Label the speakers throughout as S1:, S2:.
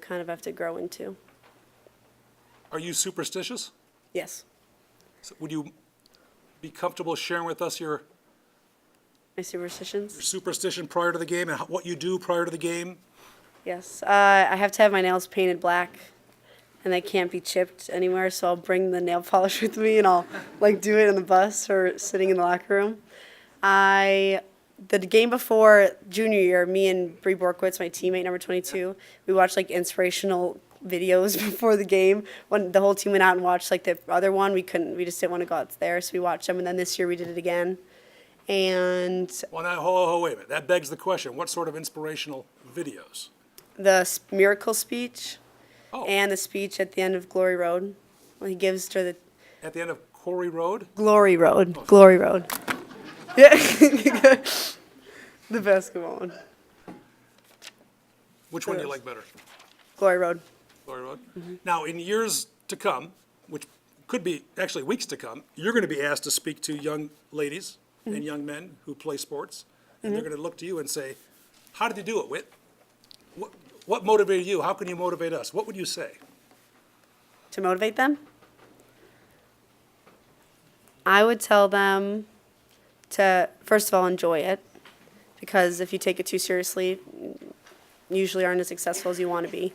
S1: kind of have to grow into.
S2: Are you superstitious?
S1: Yes,
S2: So Would you be comfortable sharing with us your
S1: my superstitions.
S2: superstition prior to the game and how- what you do prior to the game?
S1: Yes, uh, I have to have my nails painted black, and they can't be chipped anywhere. So I'll bring the nail polish with me, and I'll like do it in the bus or sitting in the locker room. I the game before junior year, me and Bree Borkowitz, my teammate number 22, we watched like inspirational videos before the game. When the whole team went out and watched like the other one, we couldn't. We just didn't want to go out there, so we watched them. And then this year we did it again. And
S2: Well, now, ho, ho, wait a minute. That begs the question. What sort of inspirational videos?
S1: the s- miracle speech
S2: Oh.
S1: and the speech at the end of Glory Road. When he gives to the
S2: At the end of Quarry Road?
S1: Glory Road, Glory Road. Yeah, the basketball one,
S2: Which one do you like better?
S1: Glory Road.
S2: Quarry Road?
S1: Mm-hmm.
S2: Now, in years to come, which could be actually weeks to come, you're going to be asked to speak to young ladies
S1: Mm-hmm.
S2: and young men who play sports. And they're going to look to you and say, How did you do it, Whit? What, what motivated you? How can you motivate us? What would you say?
S1: To motivate them, I would tell them to first of all enjoy it, because if you take it too seriously, you usually aren't as successful as you want to be.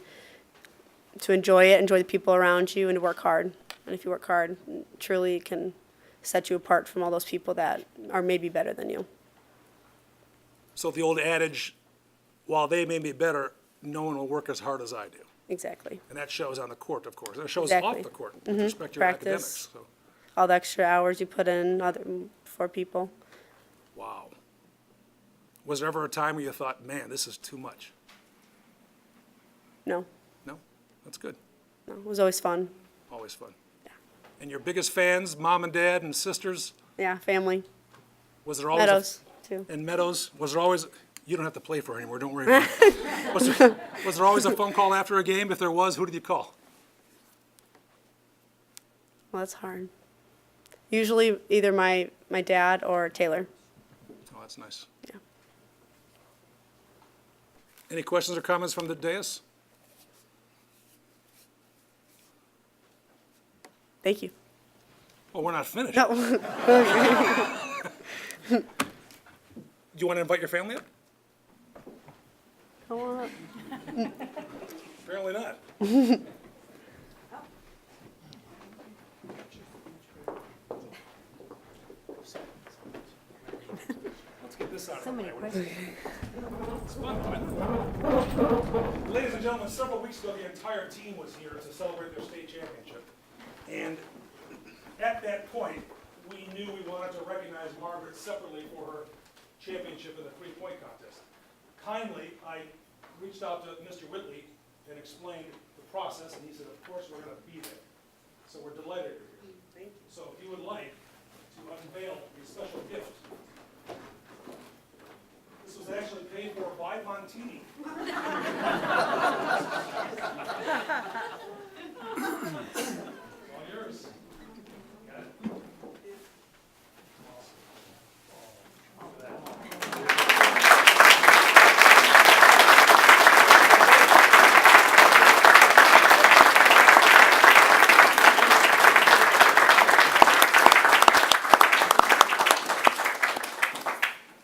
S1: To enjoy it, enjoy the people around you, and to work hard. And if you work hard, truly it can set you apart from all those people that are maybe better than you.
S2: So the old adage, while they may be better, no one will work as hard as I do.
S1: Exactly.
S2: And that shows on the court, of course. And it shows
S1: Exactly. Mm-hmm.
S2: off the court with respect to your academics.
S1: Practice.
S2: So,
S1: All the extra hours you put in other for people.
S2: wow. Was there ever a time where you thought, man, this is too much?
S1: No,
S2: No? That's good.
S1: no, it was always fun.
S2: Always fun. And your biggest fans, mom and dad and sisters,
S1: Yeah, family.
S2: was there always? a-
S1: Meadows too.
S2: And Meadows, was there always, you don't have to play for her anymore, don't worry. about it. Was there, was there always a phone call after a game? If there was, who did you call?
S1: Well, that's hard. Usually either my my dad or Taylor.
S2: Oh, that's nice.
S1: Yeah.
S2: Any questions or comments from the dais?
S1: Thank you.
S2: Oh, we're not finished.
S1: No.
S2: Do you want to invite your family up?
S1: I wanna-
S2: Apparently not. Let's get this out of the way. It's fun, but- Ladies and gentlemen, several weeks ago, the entire team was here to celebrate their state championship. And at that point, we knew we wanted to recognize Margaret separately for her championship in the three-point contest. Kindly, I reached out to Mr. Whitley and explained the process, and he said, of course, we're gonna be there. So we're delighted you're here. Mm, Thank you. So if you would like to unveil your special gift. This was actually paid for by Montini. All yours. Got it?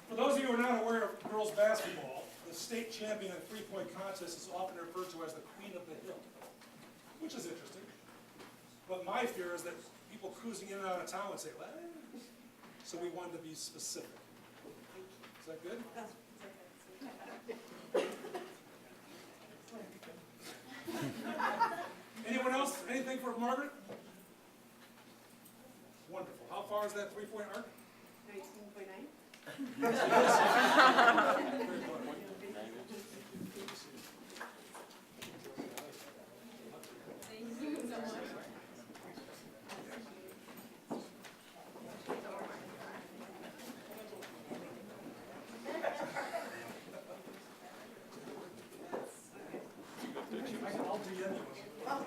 S2: For those of you who are not aware of girls' basketball, the state champion in three-point contest is often referred to as the queen of the hill, which is interesting. But my fear is that people cruising in and out of town would say, "What?" So we wanted to be specific. Is that good? Anyone else, anything for Margaret? Wonderful. How far is that three-point arc? I'll do the other one.